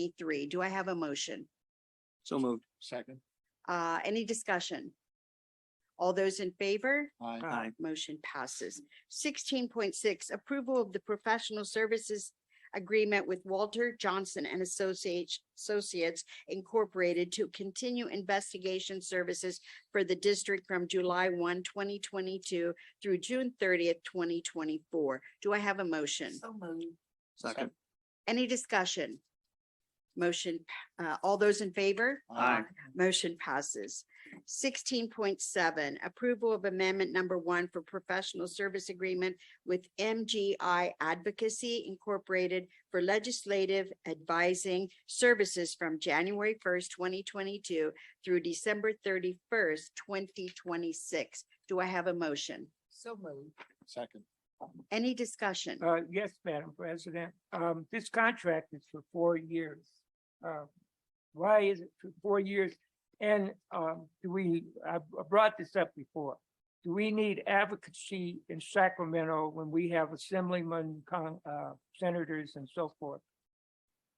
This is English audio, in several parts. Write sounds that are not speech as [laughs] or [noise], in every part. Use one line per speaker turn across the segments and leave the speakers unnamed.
twenty-three. Do I have a motion?
So moved. Second.
Uh, any discussion? All those in favor?
Aye.
Motion passes. Sixteen point six, approval of the professional services agreement with Walter Johnson and Associates, Associates Incorporated to continue investigation services for the district from July 1, 2022, through June thirtieth, twenty twenty-four. Do I have a motion?
moved.
Second.
Any discussion? Motion, pa- uh, all those in favor?
Aye.
Motion passes. Sixteen point seven, approval of amendment number one for professional service agreement with MGI Advocacy Incorporated for legislative advising services from January first, twenty twenty-two through December thirty-first, twenty twenty-six. Do I have a motion?
So moved.
Second.
Any discussion?
Uh, yes, Madam President, um, this contract is for four years. Uh, why is it for four years? And, um, do we, I I brought this up before. Do we need advocacy in Sacramento when we have assemblymen, con, uh, senators and so forth?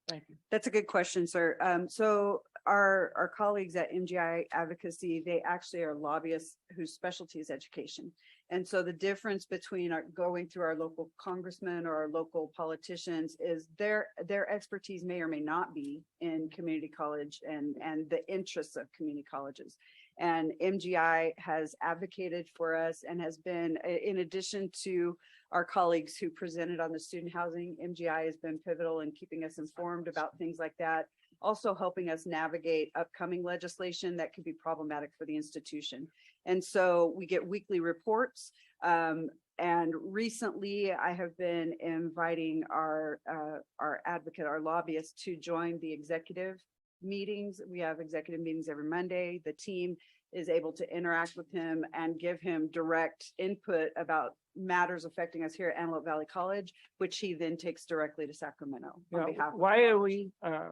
Thank you.
That's a good question, sir. Um, so our, our colleagues at MGI Advocacy, they actually are lobbyists whose specialty is education. And so the difference between our, going through our local congressmen or our local politicians is their, their expertise may or may not be in community college and, and the interests of community colleges. And MGI has advocated for us and has been, i- in addition to our colleagues who presented on the student housing. MGI has been pivotal in keeping us informed about things like that. Also helping us navigate upcoming legislation that could be problematic for the institution. And so we get weekly reports. Um, and recently I have been inviting our, uh, our advocate, our lobbyist to join the executive meetings. We have executive meetings every Monday. The team is able to interact with him and give him direct input about matters affecting us here at Antelope Valley College, which he then takes directly to Sacramento
Now,
on behalf. of-
why are we, uh,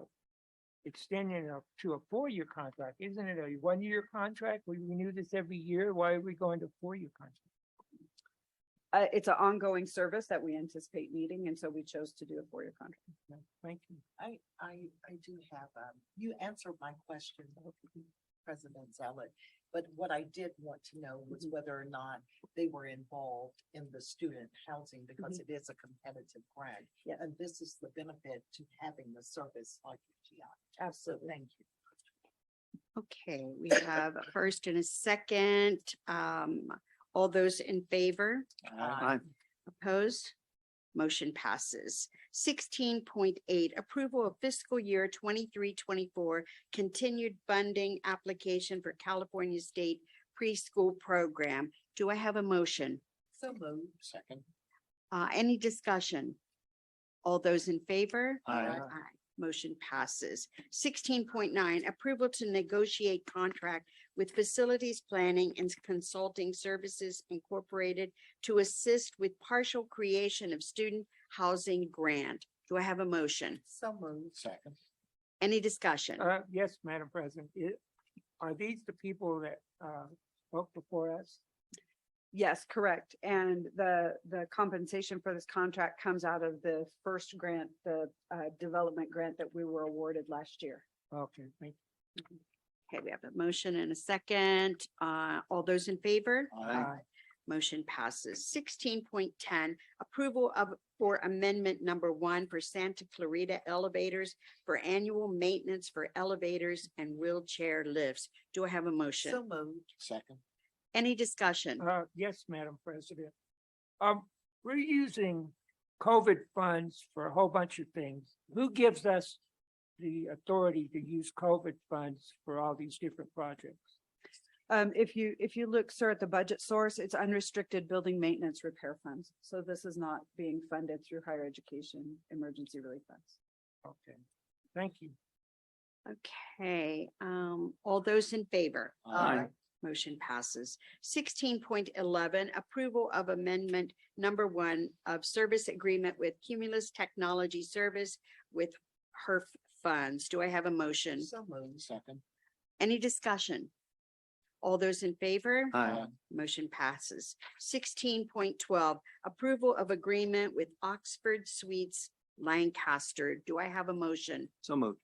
extending it up to a four-year contract? Isn't it a one-year contract? We renew this every year. Why are we going to four-year contract?
Uh, it's an ongoing service that we anticipate needing, and so we chose to do a four-year contract.
No, Thank you.
I, I, I do have, um, you answered my question, [laughs] President Zeller. But what I did want to know was whether or not they were involved in the student housing because it is a competitive grant.
Yes.
And this is the benefit to having the service like UTI. So thank you.
Okay, we have a first and a second. Um, all those in favor?
Aye.
Opposed? Motion passes. Sixteen point eight, approval of fiscal year 23-24 continued funding application for California State Preschool Program. Do I have a motion?
So moved.
Second.
Uh, any discussion? All those in favor?
Aye.
Aye. Motion passes. Sixteen point nine, approval to negotiate contract with Facilities Planning and Consulting Services Incorporated to assist with partial creation of student housing grant. Do I have a motion?
So moved.
Second.
Any discussion?
Uh, yes, Madam President, It- are these the people that, uh, spoke before us?
Yes, correct. And the, the compensation for this contract comes out of the first grant, the, uh, development grant that we were awarded last year.
Okay, thank you.
Okay, we have a motion and a second. Uh, all those in favor?
Aye.
Motion passes. Sixteen point ten, approval of, for amendment number one for Santa Clarita elevators for annual maintenance for elevators and wheelchair lifts. Do I have a
So
motion?
moved.
Second.
Any discussion?
Uh, yes, Madam President. Um, we're using COVID funds for a whole bunch of things. Who gives us the authority to use COVID funds for all these different projects?
Um, if you, if you look, sir, at the budget source, it's unrestricted building maintenance repair funds. So this is not being funded through higher education emergency relief funds.
Okay, thank you.
Okay, um, all those in favor?
Aye.
Motion passes. Sixteen point eleven, approval of amendment number one of service agreement with Cumulus Technology Service with HERF funds. Do I have a motion?
So moved.
Second.
Any discussion? All those in favor?
Aye.
Motion passes. Sixteen point twelve, approval of agreement with Oxford Suites Lancaster. Do I have a motion?
So moved.